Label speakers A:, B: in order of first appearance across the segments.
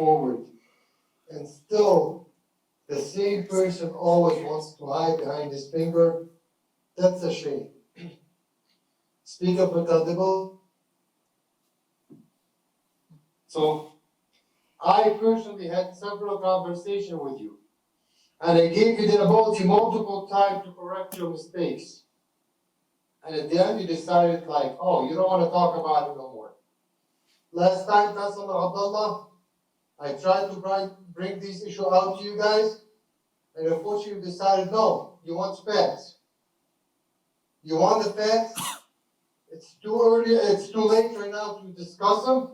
A: forward. And still, the same person always wants to hide behind his finger, that's a shame. Speak up with audible. So, I personally had several conversations with you. And I gave you the ability multiple times to correct your mistakes. And at the end, you decided like, oh, you don't wanna talk about it no more. Last time, Councilor Abdullah, I tried to bring, bring this issue out to you guys, and unfortunately you decided, no, you want facts. You want the facts, it's too early, it's too late right now to discuss them,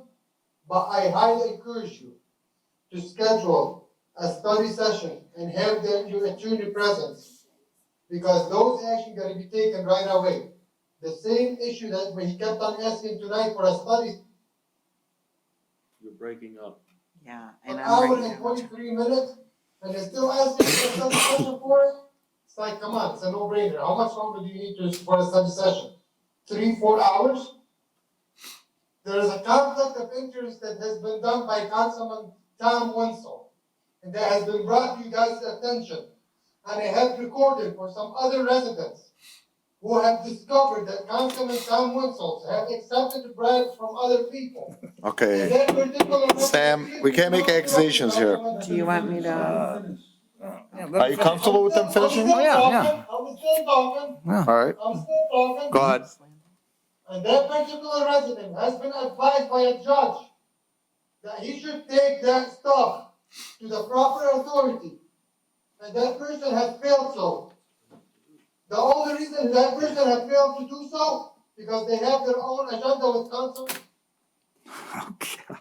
A: but I highly encourage you to schedule a study session and have them, your attorney present, because those actions gotta be taken right away. The same issue that we kept on asking tonight for a study
B: You're breaking up.
C: Yeah,
A: an
C: and I'm
A: hour and
C: breaking down.
A: forty-three minutes, and they're still asking for a study session for it? It's like, come on, it's a no-brainer, how much longer do you need to, for a study session? Three, four hours? There is a conflict of interest that has been done by Councilman Tom Wenzel, and that has been brought to you guys' attention. And I have recorded for some other residents who have discovered that Councilman Tom Wenzel have accepted bribes from other people.
D: Okay,
A: That particular-
D: Sam, we can't make accusations here.
C: Do you want me to? uh,
D: are you comfortable with them finishing?
C: Oh,
A: I'm still
E: Yeah,
A: talking,
E: yeah.
A: I'm still talking,
D: All right,
A: I'm still talking.
D: go ahead.
A: And that particular resident has been advised by a judge that he should take that stuff to the proper authority. And that person has failed so. The only reason that person has failed to do so, because they have their own agenda with council.
E: Oh, God.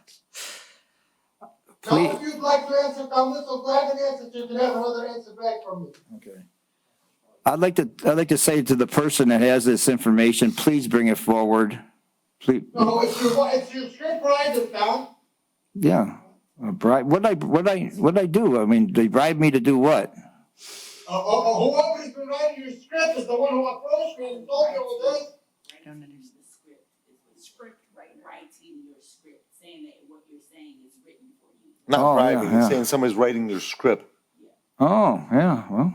A: Now, if you'd like to answer comments, or grab an answer, you can have another answer back from me.
E: I'd like to, I'd like to say to the person that has this information, please bring it forward. Please,
A: No, it's your, it's your script writer, Tom.
E: yeah. A bribe, what I, what I, what I do? I mean, they bribed me to do what?
A: Uh, uh, uh, whoever's been writing your script is the one who approached me and told me all this.
C: I don't understand.
F: The script, the script write- writing your script, saying that what you're saying is written for you.
D: Not
E: Oh, yeah,
D: bribing,
E: yeah.
D: saying somebody's writing their script.
E: Oh, yeah, well,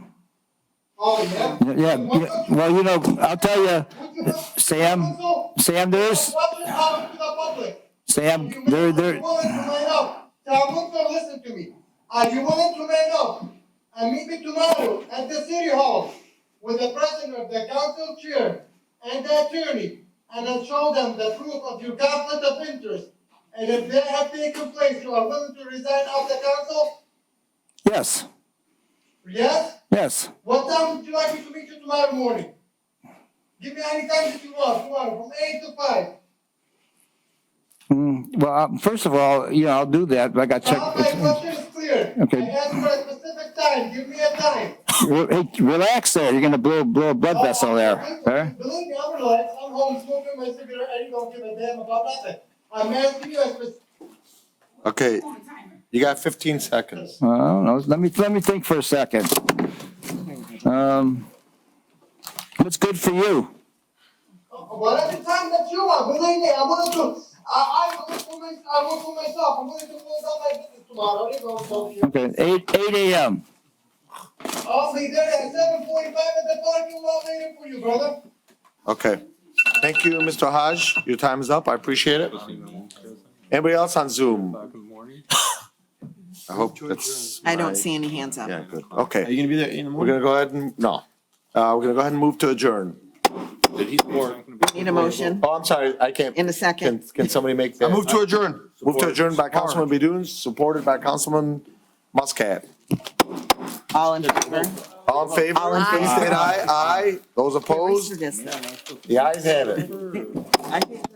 A: Oh, yeah?
E: yeah, yeah, well, you know, I'll tell you, Sam, Sam, there's,
A: What's your problem to the public?
E: Sam,
A: You
E: there,
A: want-
E: there,
A: You want to man up. Tom Woodford, listen to me. Are you willing to man up? And meet me tomorrow at the city hall with the president of the council chair and the attorney. And I'll show them the proof of your conflict of interest. And if they have taken place, you are willing to resign out the council?
E: yes,
A: Yes?
E: yes.
A: What time would you like me to meet you tomorrow morning? Give me any time that you want, tomorrow, from eight to five.
E: Mm, Well, I- first of all, you know, I'll do that, but I got
A: Now, my
E: checked.
A: question is clear.
E: Okay.
A: I asked for a specific time, give me a time.
E: Hey, relax there, you're gonna blow, blow a blood vessel there, huh?
A: Believe me, I'm relaxed, I'm home smoking my cigarette, I don't give a damn about nothing. I'm asking you a specific.
D: Okay,
F: On timer.
D: you got fifteen seconds.
E: I don't know, let me, let me think for a second. Um, what's good for you?
A: Whatever time that you want, believe me, I'm willing to, I, I work for my, I work for myself, I'm willing to close down my business tomorrow, I don't go talk to you.
E: Okay, eight, eight AM.
A: I'll be there at seven forty-five at the parking lot waiting for you, brother.
D: Okay. Thank you, Mr. Haj. Your time is up. I appreciate it. Anybody else on Zoom?
B: Back in the morning.
D: I hope that's.
C: I don't
D: my-
C: see any hands up.
D: Yeah, good. Okay,
B: you gonna be there in the
D: we're gonna go ahead and, no. Uh, we're gonna go ahead and move to adjourn.
C: Need a motion
D: Oh, I'm sorry, I can't,
C: in a
D: can,
C: second.
D: can somebody make that?
G: move to adjourn.
D: Move to adjourn by Councilman Bedun, supported by Councilman Muscat.
C: All in favor?
D: All in favor?
C: All in favor.
D: Please state aye. Aye. Those
C: Erase
D: opposed?
C: this, though.
D: The ayes have it.
C: I think